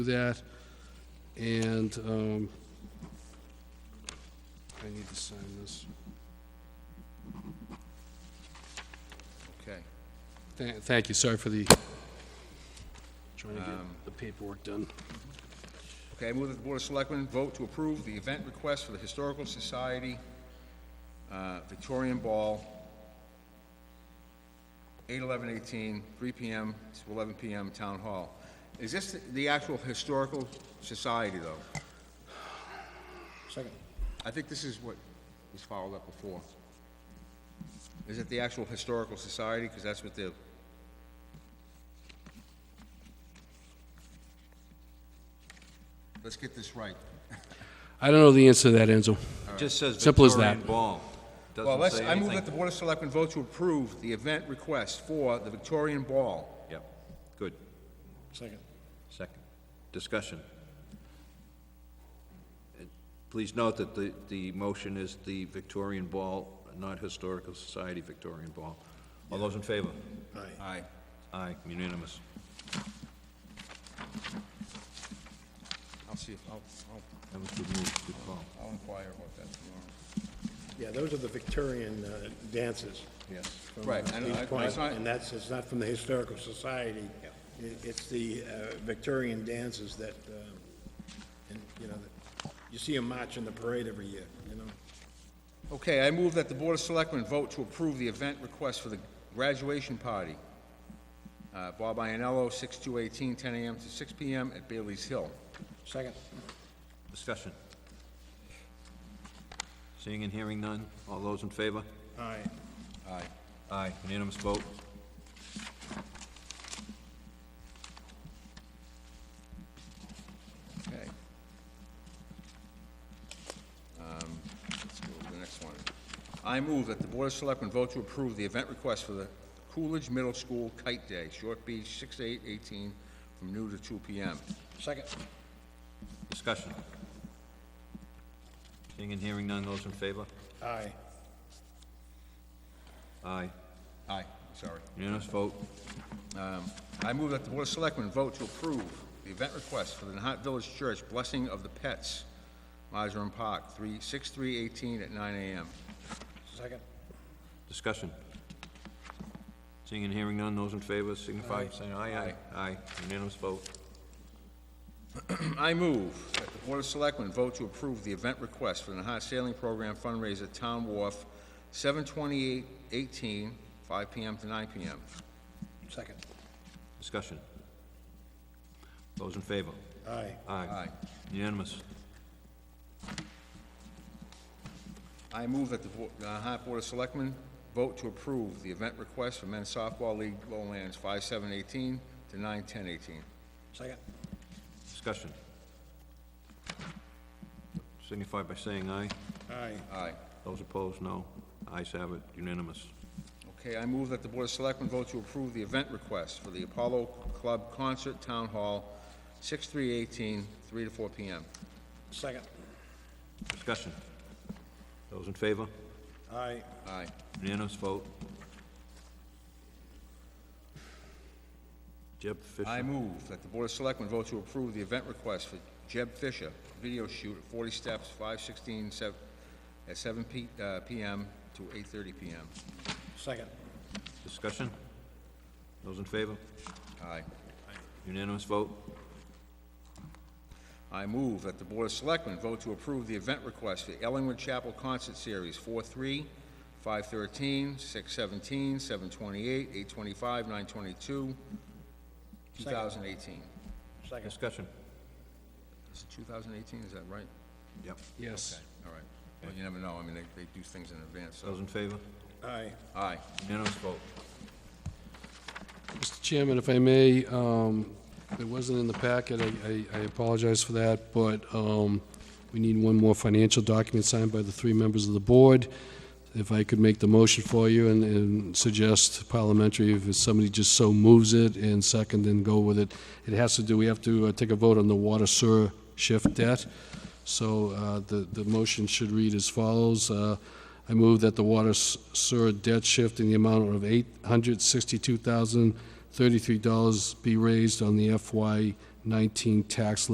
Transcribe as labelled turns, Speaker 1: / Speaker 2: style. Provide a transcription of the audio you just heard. Speaker 1: do that. And um, I need to sign this.
Speaker 2: Okay.
Speaker 1: Tha- Thank you, sorry for the, trying to get the paperwork done.
Speaker 2: Okay, I move that the Board of Selectmen vote to approve the event request for the Historical Society uh, Victorian Ball, 8/11/18, 3 PM to 11 PM, Town Hall. Is this the actual Historical Society, though? Second. I think this is what was followed up before. Is it the actual Historical Society? Because that's what the, let's get this right.
Speaker 1: I don't know the answer to that, Enzo.
Speaker 3: Just says
Speaker 1: Simple as that.
Speaker 3: Victorian Ball.
Speaker 2: Well,
Speaker 3: Doesn't
Speaker 2: let's,
Speaker 3: say
Speaker 2: I move
Speaker 3: anything.
Speaker 2: that the Board of Selectmen vote to approve the event request for the Victorian Ball.
Speaker 3: Yep, good. Second. Second. Discussion. And Please note that the, the motion is the Victorian Ball, not Historical Society Victorian Ball. All those in favor?
Speaker 2: Aye.
Speaker 3: Aye, unanimous.
Speaker 2: I'll see, if- I'll, I'll,
Speaker 3: That was good move, good call.
Speaker 2: I'll inquire about that tomorrow.
Speaker 4: Yeah, those are the Victorian uh, dances.
Speaker 2: Yes.
Speaker 4: from, uh,
Speaker 2: Right, and
Speaker 4: East
Speaker 2: I-
Speaker 4: Point,
Speaker 2: it's not-
Speaker 4: And that's, it's not from the Historical Society. It- It's the uh, Victorian dances that, um, and, you know, that- you see them march in the parade every year, you know?
Speaker 2: Okay, I move that the Board of Selectmen vote to approve the event request for the graduation party. Uh, Bob Ianello, 6 to 18, 10 AM to six PM at Bailey's Hill.
Speaker 4: Second.
Speaker 3: Discussion. Seeing and hearing none, all those in favor?
Speaker 4: Aye.
Speaker 2: Aye.
Speaker 3: Aye, unanimous vote.
Speaker 2: Okay. Um, Let's go to the next one. I move that the Board of Selectmen vote to approve the event request for the Coolidge Middle School Kite Day, Short Beach, 6 8 18 from noon to two PM.
Speaker 4: Second.
Speaker 3: Discussion. Seeing and hearing none, those in favor?
Speaker 4: Aye.
Speaker 3: Aye.
Speaker 2: Aye, sorry.
Speaker 3: Unanimous vote?
Speaker 2: I move that the Board of Selectmen vote to approve the event request for the Nahat Village Church Blessing of the Pets, Mizram Park, 3 6 3 18 at nine AM.
Speaker 4: Second.
Speaker 3: Discussion. Seeing and hearing none, those in favor signify by saying aye, aye. Aye, unanimous vote.
Speaker 2: I move that the Board of Selectmen vote to approve the event request for the Nahat Sailing Program fundraiser Town Wharf, 7/28/18, 5 PM to nine PM.
Speaker 4: Second.
Speaker 3: Discussion. Those in favor?
Speaker 4: Aye.
Speaker 3: Aye.
Speaker 2: Aye.
Speaker 3: Unanimous.
Speaker 2: I move that the Bo- the Nahat Board of Selectmen vote to approve the event request for Men's Softball League Lowlands, 5/7/18 to 9/10/18.
Speaker 4: Second.
Speaker 3: Discussion. Signify by saying aye.
Speaker 4: Aye.
Speaker 2: Aye.
Speaker 3: Those opposed, no. Ayes have it, unanimous.
Speaker 2: Okay, I move that the Board of Selectmen vote to approve the event request for the Apollo Club Concert Town Hall, 6/3/18, 3 to 4 PM.
Speaker 4: Second.
Speaker 3: Discussion. Those in favor?
Speaker 4: Aye.
Speaker 2: Aye.
Speaker 3: Unanimous vote. Jeb Fisher.
Speaker 2: I move that the Board of Selectmen vote to approve the event request for Jeb Fisher, video shoot at 40 Steps, 5/16, sev- at 7 P- uh, PM to 8:30 PM.
Speaker 4: Second.
Speaker 3: Discussion? Those in favor?
Speaker 2: Aye.
Speaker 3: Unanimous vote?
Speaker 2: I move that the Board of Selectmen vote to approve the event request for Ellingwood Chapel Concert Series 4/3, 5/13, 6/17, 7/28, 8/25, 9/22, 2018.
Speaker 4: Second.
Speaker 3: Discussion?
Speaker 2: Is it 2018, is that right?
Speaker 3: Yep.
Speaker 1: Yes.
Speaker 2: All right. Well, you never know, I mean, they, they do things in advance, so.
Speaker 3: Those in favor?
Speaker 4: Aye.
Speaker 2: Aye.
Speaker 3: Unanimous vote?
Speaker 1: Mr. Chairman, if I may, um, it wasn't in the packet, I- I I apologize for that, but um, we need one more financial document signed by the three members of the board. If I could make the motion for you and- and suggest parliamentary, if somebody just so moves it, and second, then go with it. It has to do, we have to uh, take a vote on the water sewer shift debt. So uh, the, the motion should read as follows. Uh, I move that the water s- sewer debt shift in the amount of $862,033 be raised on the FY 19 tax